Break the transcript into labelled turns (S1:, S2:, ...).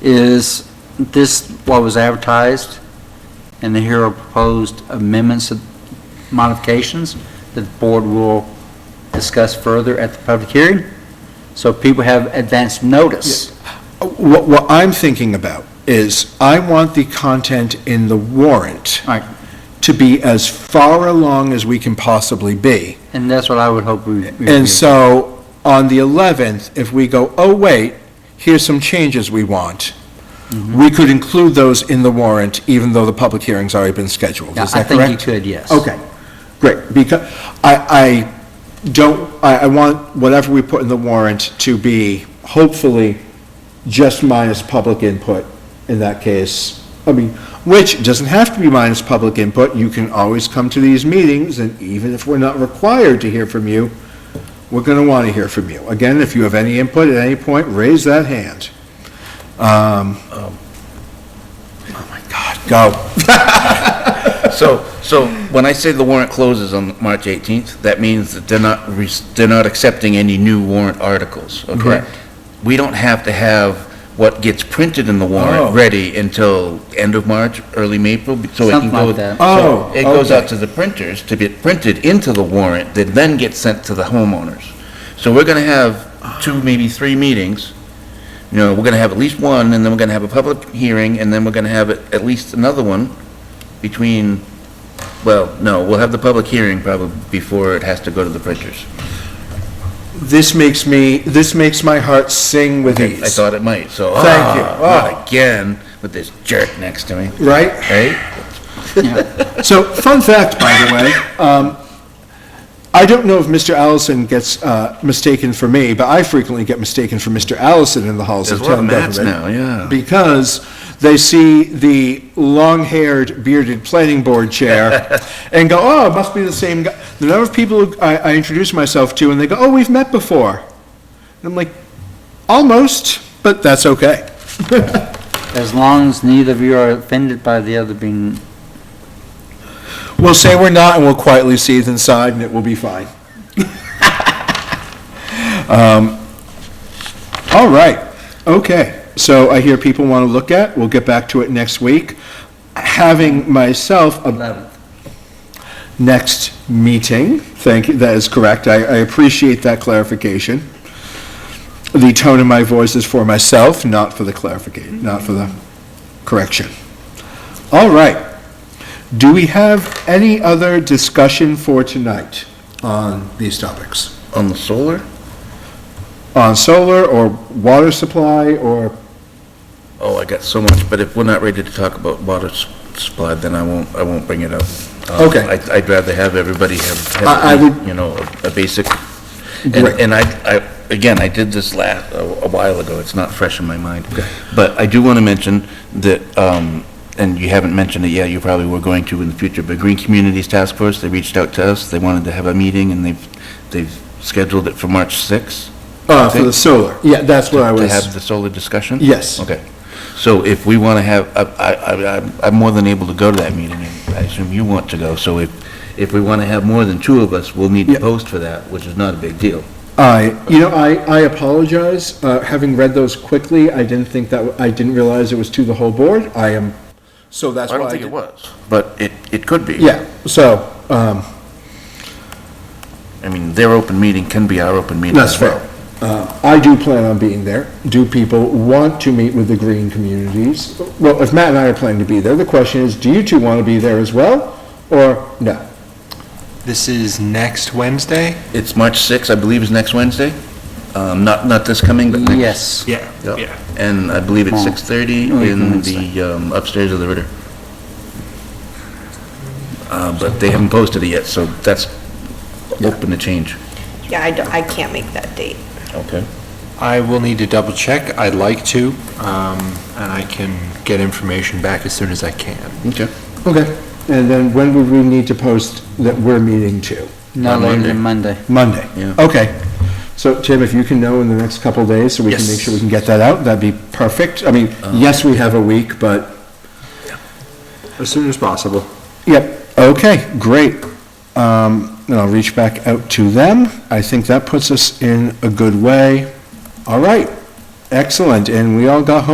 S1: is this what was advertised, and here are proposed amendments and modifications that the board will discuss further at the public hearing, so people have advance notice.
S2: What, what I'm thinking about is, I want the content in the warrant
S1: All right,
S2: to be as far along as we can possibly be.
S1: and that's what I would hope we. we do.
S2: And so, on the 11th, if we go, oh, wait, here's some changes we want,
S1: Mm-hmm.
S2: we could include those in the warrant, even though the public hearing's already been scheduled.
S1: Yeah,
S2: Is that correct?
S1: I think you could, yes.
S2: Okay, great, because I, I don't, I, I want whatever we put in the warrant to be hopefully just minus public input in that case. I mean, which doesn't have to be minus public input, you can always come to these meetings, and even if we're not required to hear from you, we're gonna wanna hear from you. Again, if you have any input at any point, raise that hand. Um, oh my God, go.
S3: So, so when I say the warrant closes on March 18th, that means that they're not, re- they're not accepting any new warrant articles, okay?
S1: Correct.
S3: We don't have to have what gets printed in the
S2: Oh.
S3: warrant ready until end of March, early April, be- so it can
S1: Something
S3: go.
S1: like that.
S2: Oh,
S3: so It goes
S2: okay.
S3: out to the printers to get printed into the warrant, that then gets sent to the homeowners. So we're gonna have two, maybe three meetings. You know, we're gonna have at least one, and then we're gonna have a public hearing, and then we're gonna have at at least another one between well, no, we'll have the public hearing probably before it has to go to the printers.
S2: This makes me, this makes my heart sing with
S3: I
S2: ease,
S3: thought it might, so.
S2: Thank you.
S3: ah,
S2: Ah.
S3: Not again with this jerk next to me,
S2: right?
S3: right?
S2: So, fun fact, by the way, um, I don't know if Mr. Allison gets uh, mistaken for me, but I frequently get mistaken for Mr. Allison in the halls
S3: There's
S2: of
S3: a lot
S2: town
S3: of mats
S2: government.
S3: now, yeah.
S2: Because they see the long-haired bearded planning board chair and go, oh, it must be the same guy. The number of people who I I introduce myself to and they go, oh, we've met before. And I'm like, almost, but that's okay.
S1: As long as neither of you are offended by the other being,
S2: We'll say we're not, and we'll quietly seethe inside, and it will be fine. Um, All right, okay. So I hear people want to look at, we'll get back to it next week. Having myself a next meeting. Thank you, that is correct. I, I appreciate that clarification. The tone in my voice is for myself, not for the clarification, not for the correction. All right. Do we have any other discussion for tonight on these topics?
S3: On the solar?
S2: On solar or water supply or,
S3: Oh, I got so much, but if we're not ready to talk about water s- supply, then I won't, I won't bring it up. Um,
S2: Okay.
S3: I'd- I'd rather have everybody have, have,
S2: I- I would-
S3: you know, a a basic, and,
S2: Right.
S3: and I, I, again, I did this last, a a while ago, it's not fresh in my mind. But I do want to mention that, um, and you haven't mentioned it yet, you probably were going to in the future, but Green Communities Task Force, they reached out to us, they wanted to have a meeting, and they've, they've scheduled it for March 6th
S2: uh, for the solar? Yeah, that's what I
S3: to have
S2: was,
S3: the solar discussion?
S2: Yes.
S3: Okay. So if we want to have, I, I, I- I'm- I'm more than able to go to that meeting, and I assume you want to go, so if, if we want to have more than two of us, we'll need
S2: Yeah.
S3: to post for that, which is not a big deal.
S2: I, you know, I, I apologize. Uh, having read those quickly, I didn't think that, w- I didn't realize it was to the whole board. I am, so that's why I did.
S3: was. But it, it could be.
S2: Yeah, so, um,
S3: I mean, their open meeting can be our open meeting
S2: that's
S3: as well.
S2: fair. Uh, I do plan on being there. Do people want to meet with the green communities? Well, if Matt and I are planning to be there, the question is, do you two want to be there as well, or no?
S4: This is next Wednesday?
S3: It's March 6th, I believe, is next Wednesday? Um, not, not this coming, but next.
S1: yes.
S4: Yeah,
S3: Yep. And I believe it's
S1: Oh.
S3: 6:30
S1: Oh, you
S3: in
S1: can
S3: the um, upstairs of the Ritter. Uh, But they haven't posted it yet, so that's open to change.
S5: Yeah, I don't, I can't make that date.
S3: Okay.
S4: I will need to double check. I'd like to, um, and I can get information back as soon as I can.
S3: Okay.
S2: Okay. And then when would we need to post that we're meeting too?
S1: No later than Monday.
S2: Monday?
S3: Yeah.
S2: Okay. So, Tim, if you can know in the next couple of days, so we can
S4: Yes.
S2: make sure we can get that out, that'd be perfect. I mean, yes, we have a week, but.
S4: As soon as possible.
S2: Yep, okay, great. Um, and I'll reach back out to them. I think that puts us in a good way. All right, excellent, and we all got home